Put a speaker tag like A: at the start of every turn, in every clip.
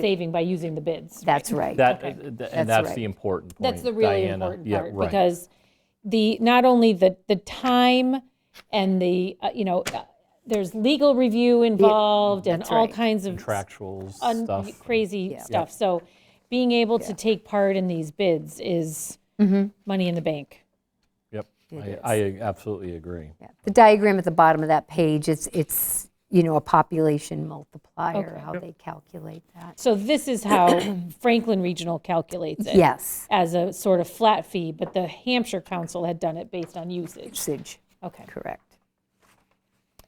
A: saving by using the bids.
B: That's right.
C: That, uh,
A: Okay.
C: and
B: That's
C: that's
B: right.
C: the important point.
A: That's the really
C: Diana.
A: important
C: Yeah,
A: part
C: right.
A: because the not only the the time and the uh, you know uh, there's legal review involved and
B: that's
A: all
B: right.
A: kinds of
C: Contractual
A: un-
C: stuff.
A: crazy stuff. So being able to take part in these bids is
C: Mm-hmm.
A: money in the bank.
C: Yep, I- I absolutely agree.
B: Yeah. The diagram at the bottom of that page, it's, it's, you know, a population multiplier, how they calculate that.
A: So this is how Franklin Regional calculates it
B: Yes,
A: as a sort of flat fee, but the Hampshire Council had done it based on usage.
B: usage,
A: Okay.
B: correct.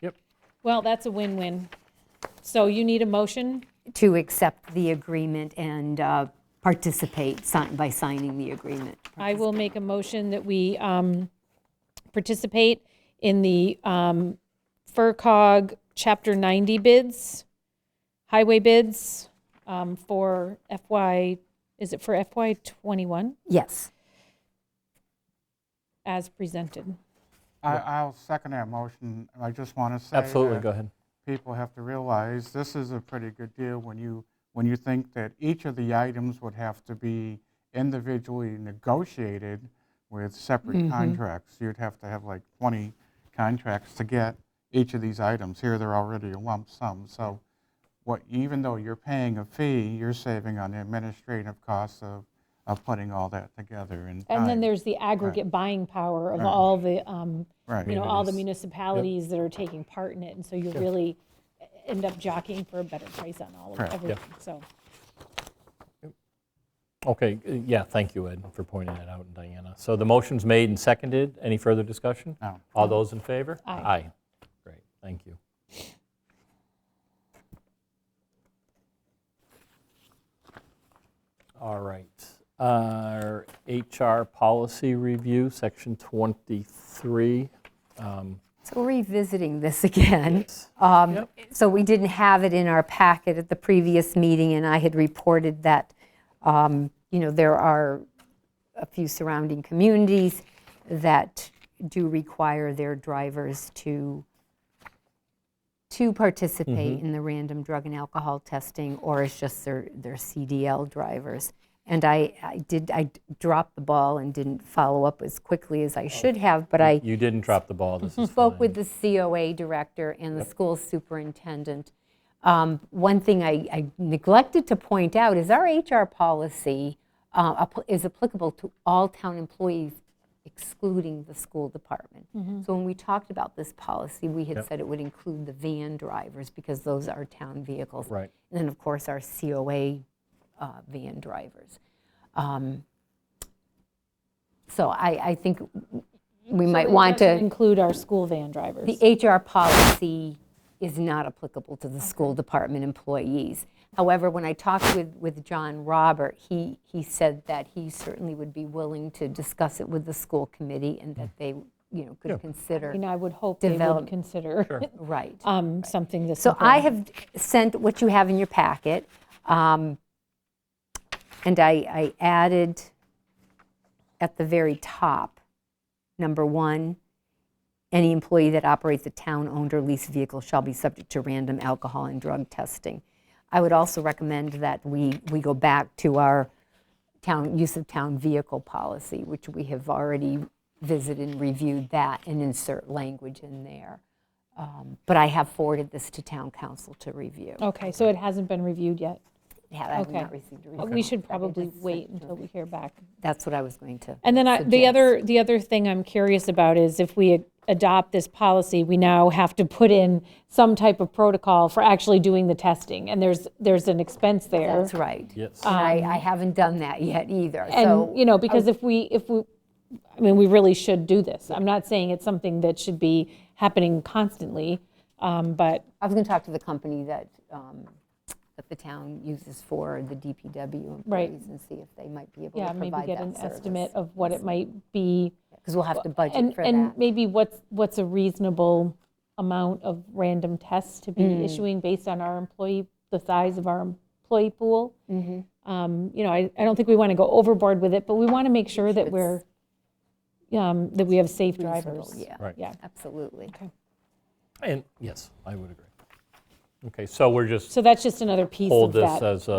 C: Yep,
A: Well, that's a win-win. So you need a motion?
B: To accept the agreement and uh, participate si- by signing the agreement.
A: I will make a motion that we um, participate in the um, FERCog Chapter 90 bids, highway bids um, for FY, is it for FY '21
B: Yes,
A: as presented?
D: I, I'll second that motion. I just want to say
C: absolutely,
D: that
C: go ahead.
D: people have to realize this is a pretty good deal when you when you think that each of the items would have to be individually negotiated with separate
A: Mm-hmm.
D: contracts. You'd have to have like 20 contracts to get each of these items. Here they're already a lump sum. So what even though you're paying a fee, you're saving on the administrative costs of, of putting all that together. And,
A: And then
D: time.
A: there's the aggregate buying power of all the, um,
D: Right.
A: you know, all the municipalities that are taking part in it. And so you really end up jockeying for a better price on all of
D: Correct.
A: everything, so.
C: Okay, uh, yeah, thank you, Ed, for pointing that out, and Diana. So the motion's made and seconded. Any further discussion?
D: No.
C: All those in favor?
A: Aye.
C: Aye. Great, thank you. All right. Our HR policy review, section 23. Um,
B: so revisiting this again.
C: Yep.
B: Um, So we didn't have it in our packet at the previous meeting, and I had reported that, um, you know, there are a few surrounding communities that do require their drivers to, to participate in the random drug and alcohol testing, or it's just their, their CDL drivers. And I, I did, I dropped the ball and didn't follow up as quickly as I should have, but I
C: You didn't drop the ball, this is
B: spoke
C: fine.
B: with the COA director and the school superintendent. Um, One thing I I neglected to point out is our HR policy uh, app- is applicable to all town employees excluding the school department. So when we talked about this policy, we had said it would include the van drivers because those are town vehicles.
C: Right.
B: And then, of course, our COA uh, van drivers. Um, So I I think we might
A: It
B: want to.
A: doesn't Include our school van drivers.
B: The HR policy is not applicable to the school department employees. However, when I talked with, with John Robert, he, he said that he certainly would be willing to discuss it with the school committee and that they, you know, could consider,
A: And I would hope they would
B: Develop-
A: consider
B: right.
A: um, something this
B: So I
A: important.
B: have sent what you have in your packet, um, and I, I added at the very top, number one, any employee that operates a town-owned or leased vehicle shall be subject to random alcohol and drug testing. I would also recommend that we, we go back to our town, use of town vehicle policy, which we have already visited and reviewed that, and insert language in there. Um, But I have forwarded this to town council to review.
A: Okay, so it hasn't been reviewed yet.
B: Yeah, I have
A: Oh, okay.
B: not received a
A: Uh,
B: review.
A: We should probably wait until we hear back.
B: That's what I was going to.
A: And then I- the
B: suggest.
A: other, the other thing I'm curious about is if we a- adopt this policy, we now have to put in some type of protocol for actually doing the testing. And there's, there's an expense there.
B: That's right.
C: Yes.
B: And I, I haven't done that yet either, so.
A: Um,
B: um,
A: And, you know, because if we, if we, I mean, we really should do this. I'm not saying it's something that should be happening constantly, um, but
B: I was going to talk to the company that, um, that the town uses for the DPW
A: Right.
B: employees and see if they might be able
A: yeah,
B: to
A: maybe
B: provide
A: get an
B: that
A: estimate of what it might be.
B: Because we'll have to budget
A: And,
B: for
A: and
B: that.
A: maybe what's, what's a reasonable amount of random tests to be
B: Mm.
A: issuing based on our employee, the size of our employee pool?
B: Mm-hmm.
A: Um, You know, I, I don't think we want to go overboard with it, but we want to make sure that we're, um, that we have safe drivers.
B: Yeah,
C: Right.
A: Yeah,
B: absolutely.
C: And, yes, I would agree. Okay, so we're just
A: so that's just another piece
C: hold
A: of that.
C: this as a